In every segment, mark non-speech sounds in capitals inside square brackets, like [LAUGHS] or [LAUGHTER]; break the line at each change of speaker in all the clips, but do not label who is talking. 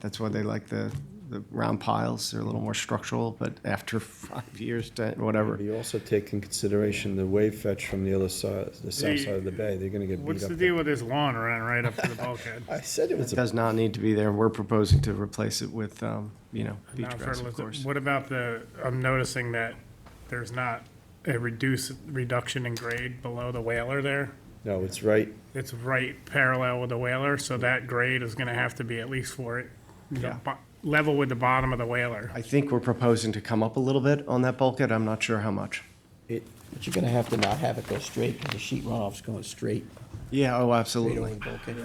That's why they like the, the round piles. They're a little more structural, but after [LAUGHS] five years, ten, whatever.
You also take in consideration the wave fetch from the other side, the south
The-
side of the bay, they're gonna get beat
What's
up.
the deal with this lawn running right up to the bulkhead?
I said it was,
It
a-
does not need to be there. We're proposing to replace it with, um, you know, [LAUGHS] beach
Not
grass, of
fertilizer.
course.
What about the, I'm noticing that there's not a reduce, reduction in grade below the whaler there.
no, it's right,
It's right parallel with the whaler, so that grade is gonna have to be at least for it, the
Yeah.
bo- level with the bottom of the whaler.
I think we're proposing to come up a little bit on that bulkhead. I'm not sure how much.
it,
But you're gonna have to not have it go straight, because the sheet runoff's going straight,
Yeah, oh,
straight away
absolutely.
bulkhead.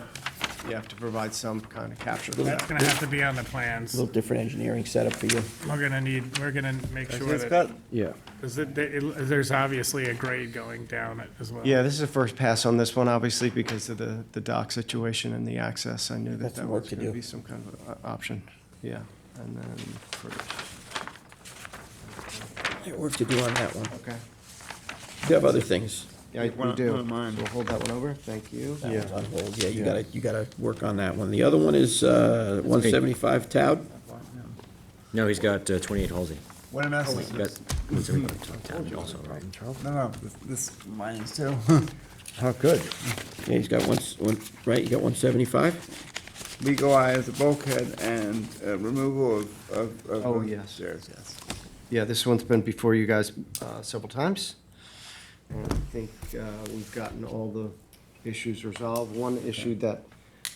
You have to provide some kind of capture. for
That's
that.
gonna have to be on the plans.
Little different engineering setup for you.
We're gonna need, we're gonna make sure
It's
that,
got,
yeah.
is that, that it- there's obviously a grade going down it as well.
Yeah, this is a first pass on this one, obviously, because of the, the dock situation and the access. I knew that
Got some
that
work
was
to
gonna
do.
be some kind of uh, option. Yeah, and then, for-
Got Work to do on that one.
okay.
You have other things.
Yeah,
One-
we do.
one of mine.
So We'll hold that one over. Thank you.
That one's on hold, yeah, you
Yeah.
gotta, you gotta work on that one. The other one is, uh, one seventy-five Town.
No, he's got uh, 28 Halsey.
what am I asking?
He's got 175 Town also, right?
No, no, this, this mine is too. [LAUGHS] Oh, good.
Yeah, he's got one, s- one, right, you got one seventy-five?
Legalize the bulkhead and uh, removal of, of. of
Oh, yes.
Stairs, yes.
Yeah, this one's been before you guys uh, several times. And I think uh, we've gotten all the issues resolved. One issue that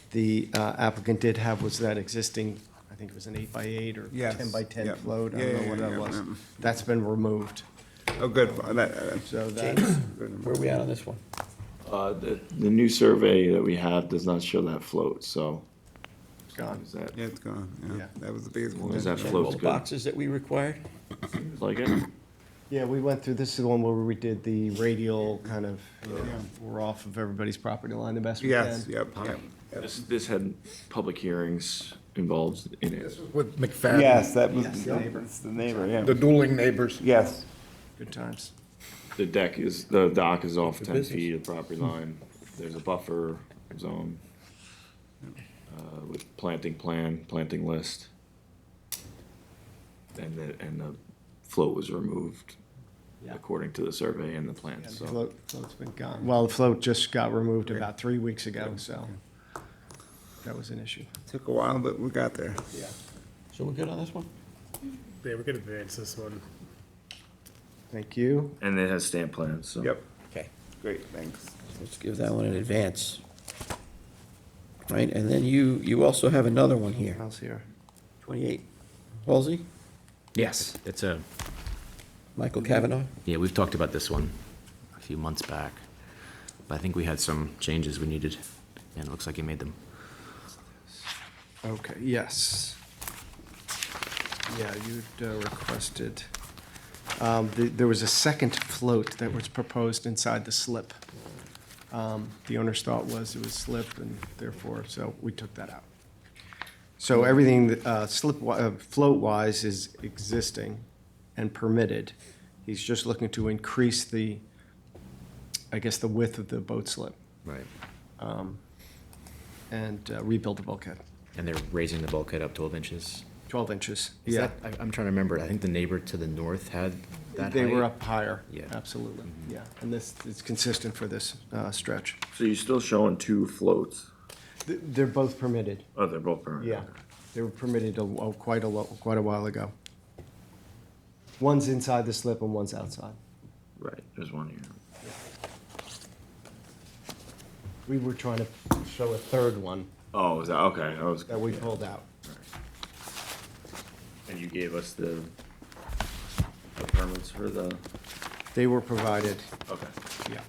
the uh, applicant did have was that existing, I think it was an eight by eight or
Yes,
ten by ten
yep.
float. I
Yeah,
don't
yeah,
know what
yeah,
that
yeah,
was.
mm.
That's been removed,
Oh, good, that, uh,
so that,
James, where are we at on this one?
Uh, the, the new survey that we have does not show that float, so.
gone.
Is that,
yeah, it's gone, yeah,
Yeah.
that was the biggest one.
is that
Check all
float's
the
good?
boxes that we required?
Like it?
Yeah, we went through, this is the one where we did the radial kind of, you know, we're off of everybody's property line the best we can.
Yes, yep, yep. yep.
This, this had public hearings involved in it.
With McFadden.
Yes, that was,
Yes, the neighbor.
it's the neighbor, yeah,
The dueling neighbors.
yes.
Good times.
The deck is, the dock is off ten
business.
feet of property line. There's a buffer zone. Uh, with planting plan, planting list. And the, and the float was removed
Yeah.
according to the survey and the plan,
And
so.
the float, float's been gone. Well, the float just got removed about three weeks ago, so that was an issue.
Took a while, but we got there.
So we're good on this one?
Yeah, we could advance this one.
Thank you.
And it has stamp plans, so.
Yep,
Okay.
great, thanks.
Let's give that one an advance. Right, and then you, you also have another one here,
How's here?
twenty-eight. Halsey,
Yes, it's a,
Michael Kavanaugh?
yeah, we've talked about this one a few months back. But I think we had some changes we needed, and it looks like you made them.
Okay, yes. Yeah, you'd uh, requested, um, th- there was a second float that was proposed inside the slip. Um, The owner's thought was it was slip and therefore, so we took that out. So everything uh, slip, wi- uh, float-wise is existing and permitted. He's just looking to increase the, I guess, the width of the boat slip
Right.
and uh, rebuild the bulkhead,
And they're raising the bulkhead up 12 inches.
12 inches.
Is
Yeah.
that- I- I'm trying to remember, I think the neighbor to the north had that height.
They were up higher.
Yeah. Mm-hmm.
Absolutely, yeah. And this, it's consistent for this uh, stretch.
So you're still showing two floats?
Th- They're both permitted,
Oh, they're both permanent?
yeah. They were permitted a wh- quite a, lo- quite a while ago. One's inside the slip and one's outside.
Right, there's one here.
We were trying to show a third one
Oh, is that, okay, I was.
that we pulled out.
And you gave us the, the permits for the,
They were provided,
okay.
yeah.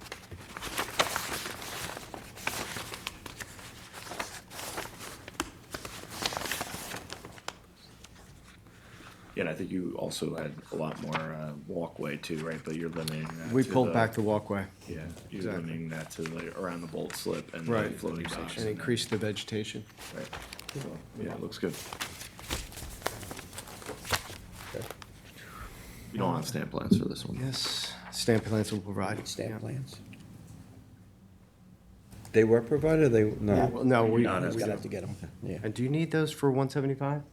Yeah, and I think you also had a lot more, uh, walkway too, right, but you're limiting that
We
to
pulled back the walkway
Yeah, you're
exactly.
limiting that to like around the bolt slip and the
Right.
floating docks.
and
that.
increased the vegetation.
Right. So, Yeah, it looks good. You don't have stamp plans for this one?
Yes, stamp plans will provide.
Stamp
yeah.
plans.
They were provided, or they, no?
Well, No, we,
Not as-
we-
Gotta have to get them, yeah.
and do you need those for one seventy-five?